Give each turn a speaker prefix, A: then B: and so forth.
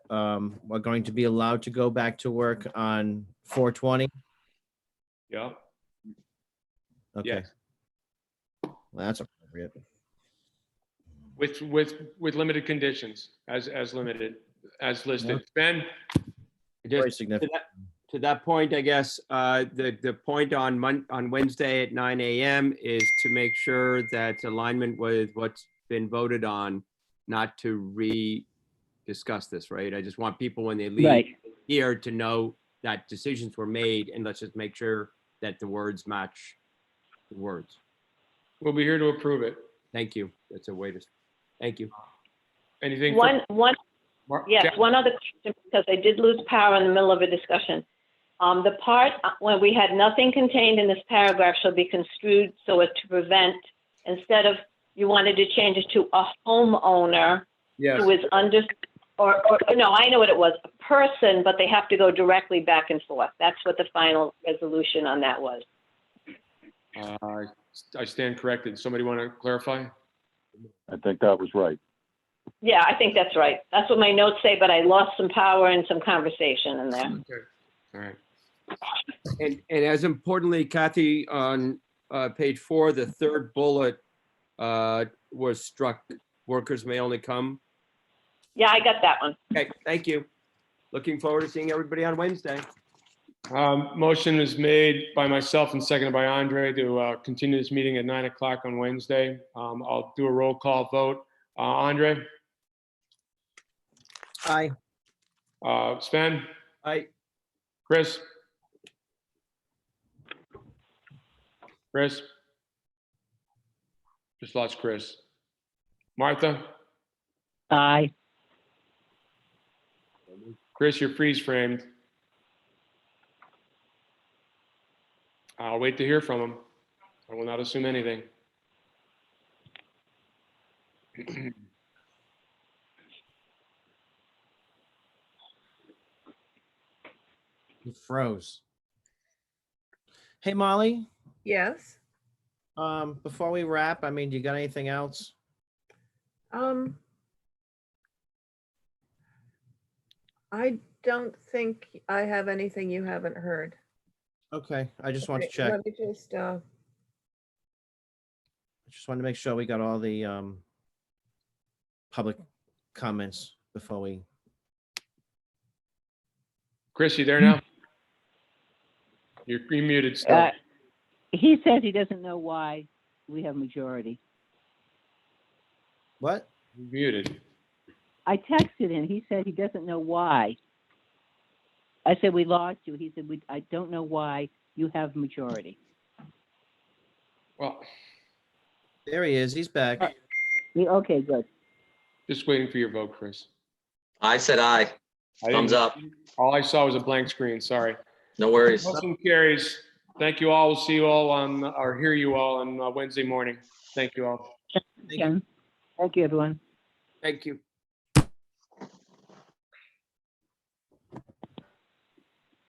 A: um, are going to be allowed to go back to work on four twenty?
B: Yeah,
A: Okay,
B: yes,
A: well, that's appropriate.
B: with, with, with limited conditions, as, as limited, as listed. Ben?
A: Very
C: Just
A: significant.
C: to that point, I guess, uh, the, the point on Mon, on Wednesday at nine AM is to make sure that alignment with what's been voted on, not to re-discuss this, right? I just want people when they leave
D: Right,
C: here to know that decisions were made and let's just make sure that the words match the words.
B: We'll be here to approve it.
C: Thank you. That's a way to, thank you.
B: Anything? for-
E: One, one,
B: Mar-
E: yeah,
B: Jack?
E: one other question, because I did lose power in the middle of a discussion. Um, the part uh, when we had nothing contained in this paragraph shall be construed so as to prevent, instead of, you wanted to change it to a homeowner
B: Yes,
E: who is under, or, or, no, I know what it was, a person, but they have to go directly back and forth. That's what the final resolution on that was.
B: uh, I stand corrected. Somebody want to clarify?
F: I think that was right.
E: Yeah, I think that's right. That's what my notes say, but I lost some power and some conversation in there.
B: All right.
C: And, and as importantly, Kathy, on uh, page four, the third bullet uh, was struck, workers may only come.
E: Yeah, I got that one.
C: Okay, thank you. Looking forward to seeing everybody on Wednesday.
B: Um, Motion is made by myself and seconded by Andre to uh, continue this meeting at nine o'clock on Wednesday. Um, I'll do a roll call vote. Uh, Andre,
A: Aye.
B: uh, Sven,
C: I,
B: Chris? Chris? Just lost Chris. Martha?
D: aye.
B: Chris, you're freeze framed. I'll wait to hear from him. I will not assume anything.
A: He froze. Hey, Molly,
G: Yes.
A: um, before we wrap, I mean, do you got anything else?
G: Um, I don't think I have anything you haven't heard.
A: Okay, I just want to
G: Wait,
A: check.
G: Let me just, uh,
A: Just wanted to make sure we got all the, um, public comments before we,
B: Chris, you there now? You're you're muted still.
D: Uh, He says he doesn't know why we have majority.
A: what?
B: You're Muted.
D: I texted him, he said he doesn't know why. I said, we lost you. He said, we, I don't know why you have majority.
B: Well,
A: There he is. He's back.
D: We- Okay, good.
B: just waiting for your vote, Chris.
H: I said aye.
B: I didn't-
H: Thumbs up.
B: All I saw was a blank screen, sorry.
H: No worries.
B: Motion carries. Thank you all. We'll see you all on, or hear you all on uh, Wednesday morning. Thank you all.
D: Thank you, everyone.
C: thank you.